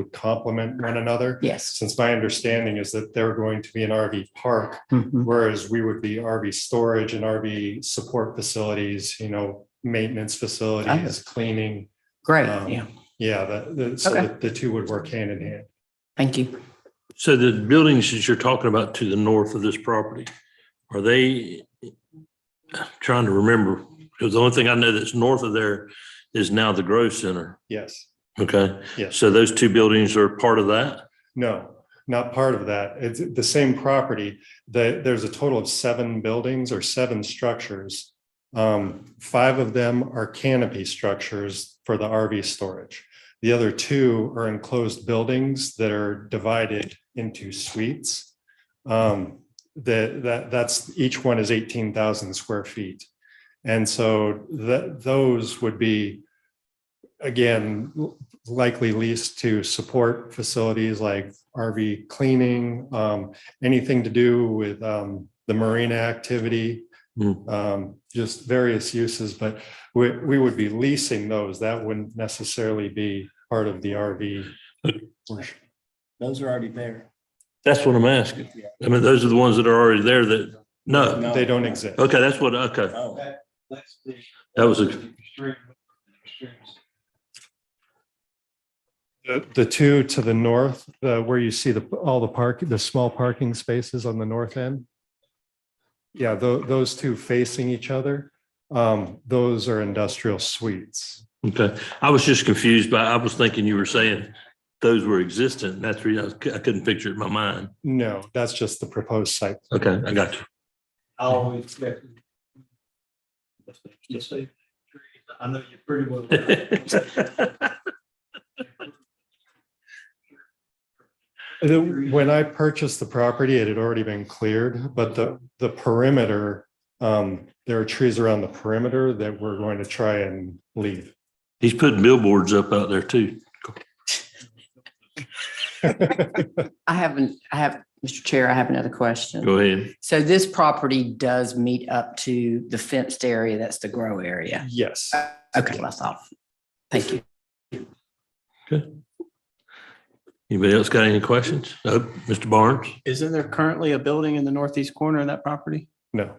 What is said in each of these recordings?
would complement one another. Yes. Since my understanding is that they're going to be an RV park, Mhm. whereas we would be RV storage and RV support facilities, you know, maintenance facilities, cleaning. Great. Um, Yeah. Yeah, the, the, so Okay. the, the two would work hand in hand. Thank you. So the buildings that you're talking about to the north of this property, are they I'm trying to remember, because the only thing I know that's north of there is now the Grove Center. Yes. Okay. Yes. So those two buildings are part of that? No, not part of that. It's the same property. The, there's a total of seven buildings or seven structures. Um, five of them are canopy structures for the RV storage. The other two are enclosed buildings that are divided into suites. Um, that, that, that's, each one is eighteen thousand square feet. And so that, those would be, again, likely leased to support facilities like RV cleaning, um, anything to do with, um, the marina activity. Hmm. Um, just various uses, but we, we would be leasing those. That wouldn't necessarily be part of the RV. portion. Those are already there. That's what I'm asking. I mean, those are the ones that are already there that, no. No. They don't exist. Okay, that's what, okay. Oh, That's the. That was a, Extreme. extremes. The, the two to the north, uh, where you see the, all the park, the small parking spaces on the north end. Yeah, tho- those two facing each other, um, those are industrial suites. okay. I was just confused by, I was thinking you were saying those were existent. and That's the reason I was- I couldn't picture it in my mind. No, that's just the proposed site. Okay, I got you. I always expect. You see, I know you pretty well. The- When I purchased the property, it had already been cleared, but the, the perimeter, um, there are trees around the perimeter that we're going to try and leave. He's putting billboards up out there too. I haven't, I have, Mr. Chair, I have another question. Go ahead. So this property does meet up to the fenced area. That's the grow area. Yes, Okay, that's all. Thank you. Anybody else got any questions? Uh, Mr. Barnes? Isn't there currently a building in the northeast corner of that property? no.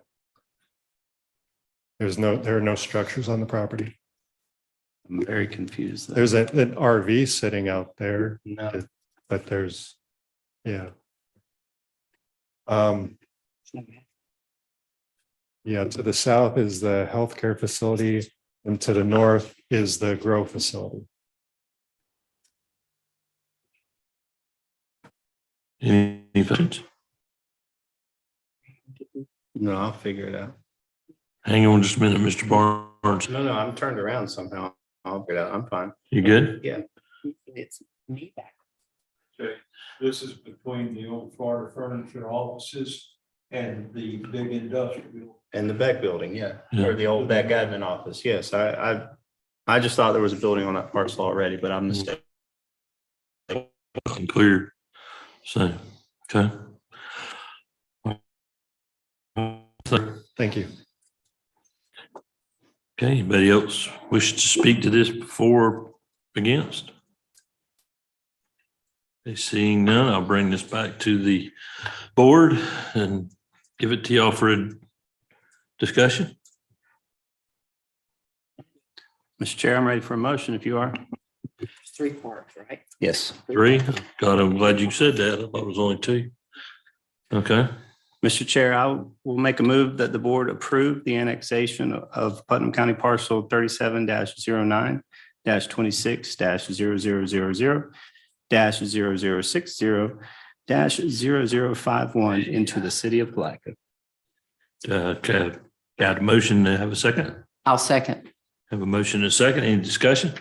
There's no, there are no structures on the property. I'm very confused. there. There's a- an RV sitting out there, No, but there's, yeah. Um, yeah, to the south is the healthcare facility and to the north is the grow facility. Any any questions? no, I'll figure it out. Hang on just a minute, Mr. Barnes. No, no, I'm turned around somehow. I'll figure it out. I'm fine. You good? It's me back. Okay, this is between the old Florida furniture offices and the big industrial. And the back building, yeah, Yeah. or the old back admin office. Yes, I, I, I just thought there was a building on that parcel already, but I'm mistaken. Fucking Clear. So, okay. Okay, Thank you. anybody else wish to speak to this before or against? Okay, Seeing none, I'll bring this back to the board and give it to y'all for a discussion. Mr. Chair, I'm ready for a motion if you are. Three parts, right? Yes. Three? God, I'm glad you said that. I thought it was only two. Okay, Mr. Chair, I will make a move that the board approve the annexation of Putnam County Parcel thirty-seven 9 twenty-six 0 dash 0 dash into the city of Blackham. uh, okay. Got a motion to have a second? I'll second. Have a motion and a second. Any discussion?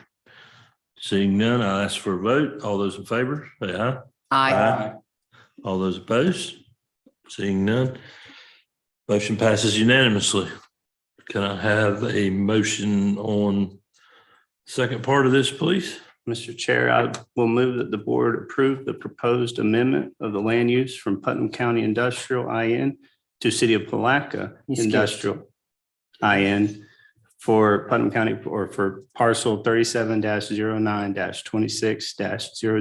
Seeing none, I'll ask for a vote. All those in favor, say aye. I, All those opposed? Seeing none. Motion passes unanimously. Can I have a motion on second part of this, please? Mr. Chair, I will move that the board approve the proposed amendment of the land use from Putnam County Industrial IN to City of Palaca You skipped. Industrial IN for Putnam County or for parcel thirty-seven 9 twenty-six 0